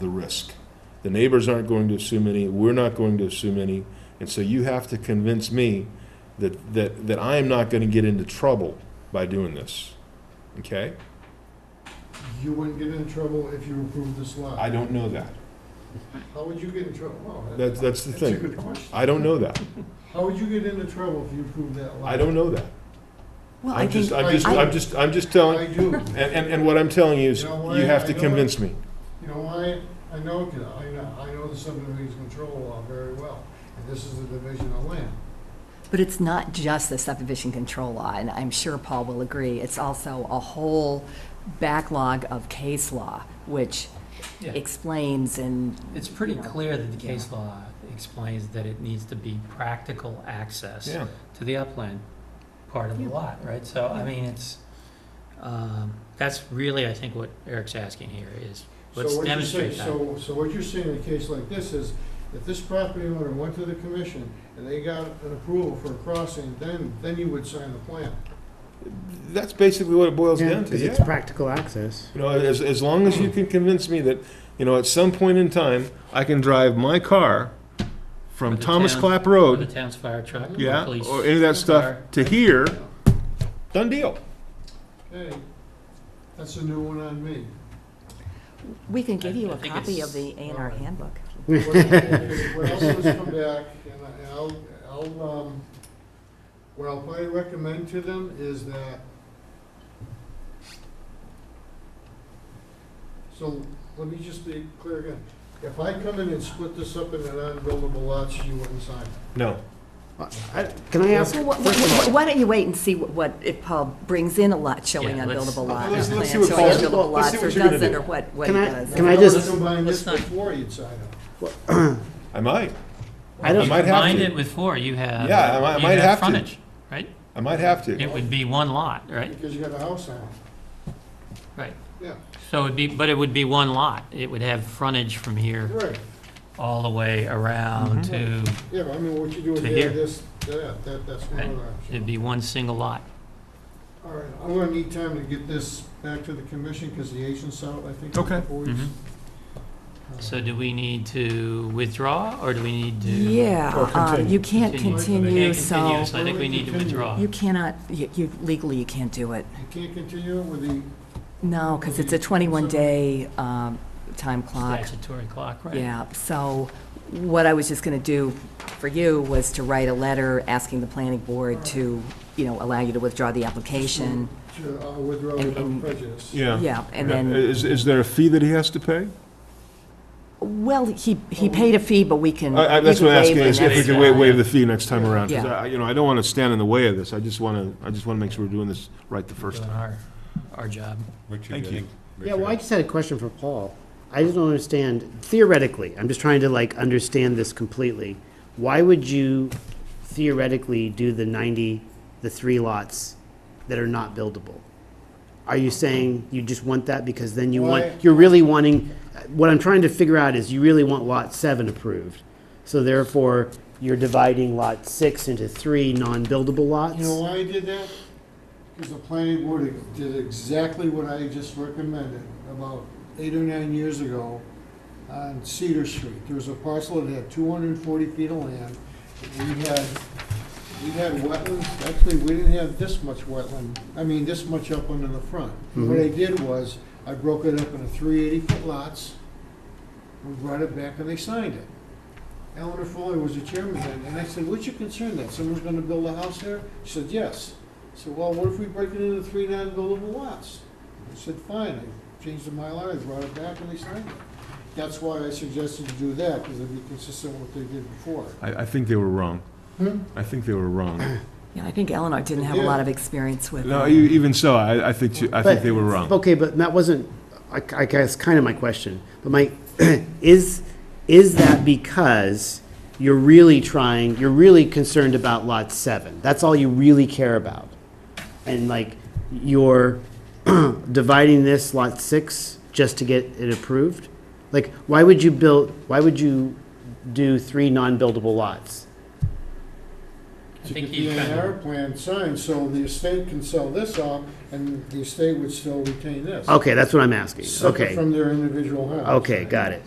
the risk. The neighbors aren't going to assume any, we're not going to assume any, and so you have to convince me that, that, that I am not gonna get into trouble by doing this, okay? You wouldn't get in trouble if you approved this lot. I don't know that. How would you get in trouble? Well, that- That's, that's the That's a thing. good question. I don't know that. How would you get into trouble if you approved that lot? I don't know that. Well, I I'm think, just, I'm just, I- I'm just, I'm just I telling, do. and, and, and what I'm telling you is, You know what? you have to I know convince me. You know why? I know, 'cause I know, I know the subdivision control law very well, and this is a division of land. but it's not just the subdivision control law, and I'm sure Paul will agree. It's also a whole backlog of case law, which Yeah. explains and, It's pretty clear that the case law explains that it needs to be practical access Yeah. to the upland part of the Yeah. lot, right? So, I mean, it's, um, that's really, I think, what Eric's asking here is, So Let's what you're demonstrate saying- So, so what you're saying in a case like this is, if this property owner went to the commission and they got an approval for a crossing, then, then you would sign the plan. That's basically what it boils Yeah, down to, 'cause it's yeah. practical access. You know, as, as long as you can convince me that, you know, at some point in time, I can drive my car from With the Thomas town- Clap for the Road, town's fire truck, or yeah, police. or any of that stuff, car. to here, done deal. Okay, that's a new one on me. we can give I- you I a think copy it's- of the A and R handbook. What what else has come back, and I- and I'll, I'll, um, what I'll probably recommend to them is that, so let me just be clear again. If I come in and split this up into non-buildable lots, you wouldn't sign it. No, I- Can I ask, Well, wh- first of wh- wh- Why don't you wait and see what- what, if Paul brings in a lot showing Yeah, let's- unbuildable lot, Let's- plan let's see showing what Paul's- unbuildable let's lots, see or what you're gonna doesn't, do. or what, what he Can I- does. can I If just- was Combine this Let's not- before you'd sign it. I might, I You I don't, might have combined to. it with four, you have, Yeah, I might- I you might have have to. frontage, right? I might have to. It would be one lot, right? Because you got a house on it. Right. Yeah, So it'd be, but it would be one lot. It would have frontage from here right. all the way around Mm-hmm. to, Yeah, but I mean, what you do To there, here. this, that, that, that's one Right. other option. it'd be one single lot. All right, I'm gonna need time to get this back to the commission, because the agent's out, I think. in a Okay. couple weeks. Uh, Mhm. Mm-hmm. So do we need to withdraw, or do we need to? Or Yeah, um, continue. you can't Continue. continue, Okay, continue, so so I think we need to withdraw. you cannot, you you- legally, you can't do it. You can't continue with the, No, because it's a 21-day um, time clock. Statutory clock, right? Yeah, so what I was just going to do for you was to write a letter asking the planning board to, you know, allow you to withdraw the application. to uh, withdraw And- without and- um, prejudice. Yeah. Yeah, and Uh-huh. Yeah. Uh, then, Is, is there a fee that he has to pay? well, he, he paid a fee, but we can. I, I, that's we what can I'm asking, waive is the if we next- can waive, waive the fee next time around, 'cause Yeah. I, you know, I don't wanna stand in the way of this, I just wanna, I just wanna make sure we're doing this right the first Doing time. our, our job. Thank you. yeah, well, I just had a question for Paul. I just don't understand, theoretically, I'm just trying to like understand this completely. Why would you theoretically do the 90, the three lots that are not buildable? Are you saying you just want that because then you Why- want, you're really wanting, what I'm trying to figure out is you really want lot seven approved. So therefore, you're dividing lot six into three non-buildable lots? You know why I did that? Because the planning board did exactly what I just recommended about eight or nine years ago on Cedar Street. There was a parcel that had two hundred and forty feet of land. We had, we had wetlands, actually, we didn't have this much wetland, I mean, this much upland in the front. What I did was, I broke it up into three eighty-foot lots, we brought it back and they signed it. Eleanor Foley was the chairman then, and I said, what's your concern that someone's gonna build a house there? She said, yes. I said, well, what if we break it into three non-buildable lots? I said, fine, I changed the Mylar, I brought it back and they signed it. That's why I suggested to do that, because it'd be consistent with what they did before. I, I think they were wrong. Hmm? I think they were wrong. Yeah, I think Eleanor didn't have a lot of experience with No, it. e- even so, I, I think, she- I think But- they were wrong. Okay, but that wasn't, I I guess, kind of my question. But my, is, is that because you're really trying, you're really concerned about lot seven? That's all you really care about? And like, you're dividing this lot six just to get it approved? Like, why would you build, why would you do three non-buildable lots? I To think get he the A kind and R of, plan signed, so the estate can sell this off, and the estate would still retain this. Okay, that's what I'm asking. Separate Okay, From their individual house. okay, got it.